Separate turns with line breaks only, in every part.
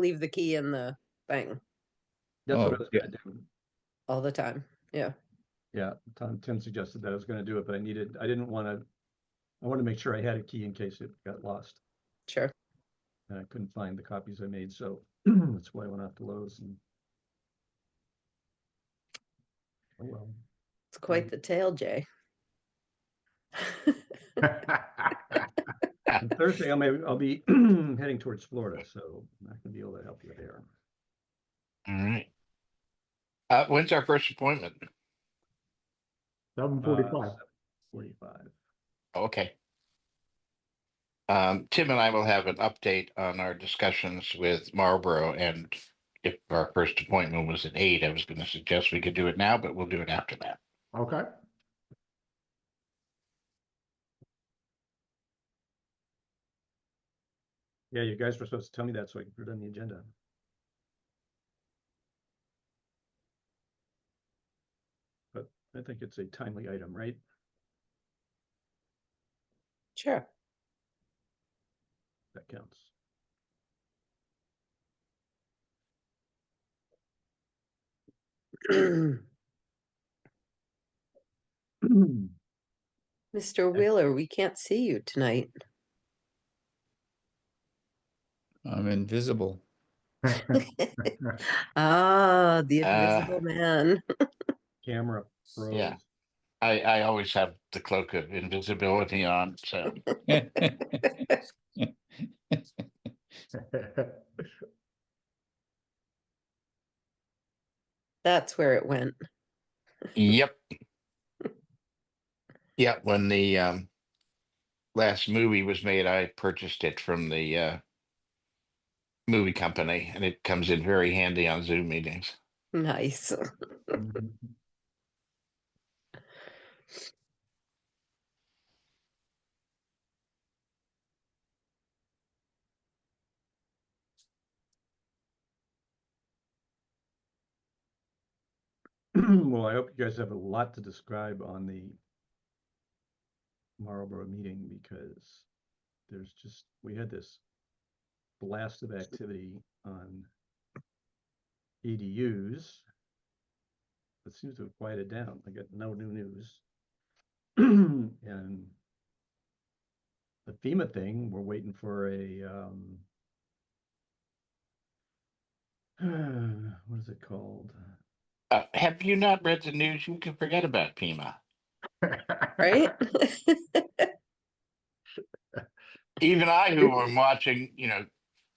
leave the key in the thing
That's what
Oh,
I was
yeah.
gonna do.
all the time. Yeah.
Yeah, Tom, Tim suggested that I was gonna do it, but I needed, I didn't wanna, I wanted to make sure I had a key in case it got lost.
Sure.
And I couldn't find the copies I made, so that's why I went off to Lowe's and. Oh, well.
It's quite the tale, Jay.
Ah.
And Thursday, I may, I'll be heading towards Florida, so I'm not gonna be able to help you there.
All right. Uh, when's our first appointment?
Seven forty-five.
Uh, Forty-five.
Okay. Um, Tim and I will have an update on our discussions with Marlboro and if our first appointment was at eight, I was gonna suggest we could do it now, but we'll do it after that.
Okay.
Yeah, you guys were supposed to tell me that so I could put it on the agenda. But I think it's a timely item, right?
Sure.
That counts.
Mr. Wheeler, we can't see you tonight.
I'm invisible.
ah, the
Ah.
invisible man.
Camera froze.
Yeah. I, I always have the cloak of invisibility on, so
That's where it went.
Yep. Yeah, when the um last movie was made, I purchased it from the uh movie company and it comes in very handy on Zoom meetings.
Nice.
Mm-hmm. Well, I hope you guys have a lot to describe on the Marlboro meeting because there's just, we had this blast of activity on EDUs. It seems to have quieted down. I got no new news. And the FEMA thing, we're waiting for a, um, what is it called?
Uh, have you not read the news? You can forget about Pima.
Right?
Even I, who am watching, you know,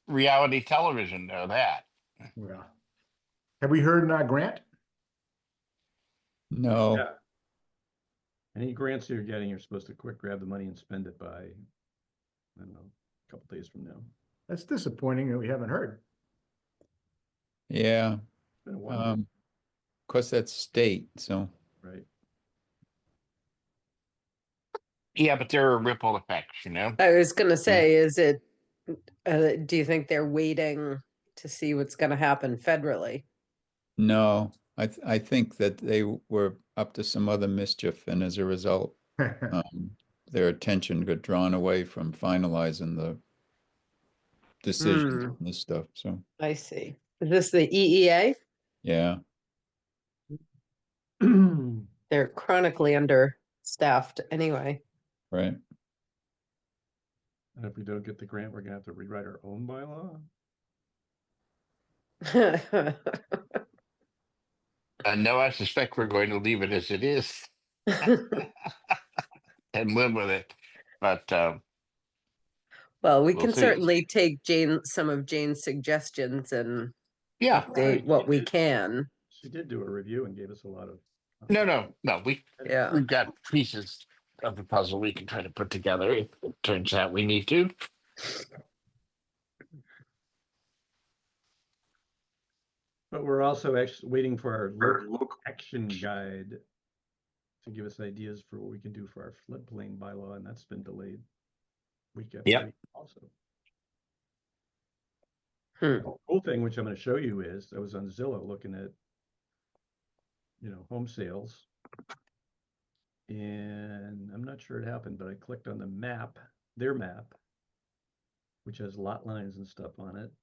reality television, know that.
Yeah. Have we heard uh Grant?
No,
Yeah. Any grants you're getting, you're supposed to quick grab the money and spend it by, I don't know, a couple days from now.
That's disappointing that we haven't heard.
yeah,
Been a while,
um, of course, that's state, so,
right?
Yeah, but there are ripple effects, you know?
I was going to say, is it, uh, do you think they're waiting to see what's going to happen federally?
no. I, th- I think that they w- were up to some other mischief and as a result, um, their attention got drawn away from finalizing the
Hmm.
decisions on this stuff, so,
I see. Is this the E EEA?
yeah.
They're chronically understaffed anyway.
Right,
And if we don't get the grant, we're gonna have to rewrite our own bylaw.
Uh, no, I suspect we're going to leave it as it is and live with it. But um,
Well, we
We'll
can
see.
certainly take Jane, some of Jane's suggestions and
yeah,
update what we can.
She did do a review and gave us a lot of. uh,
No, no, no, we,
Yeah,
we've got pieces of the puzzle we can try to put together. if it Turns out we need to.
But we're also actually waiting for our local action guide to give us ideas for what we can do for our floodplain bylaw, and that's been delayed week after
Yep.
week also.
Hmm.
A Cool thing, which I'm gonna show you is, I was on Zillow looking at, you know, home sales. And I'm not sure it happened, but I clicked on the map, their map, which has lot lines and stuff on it,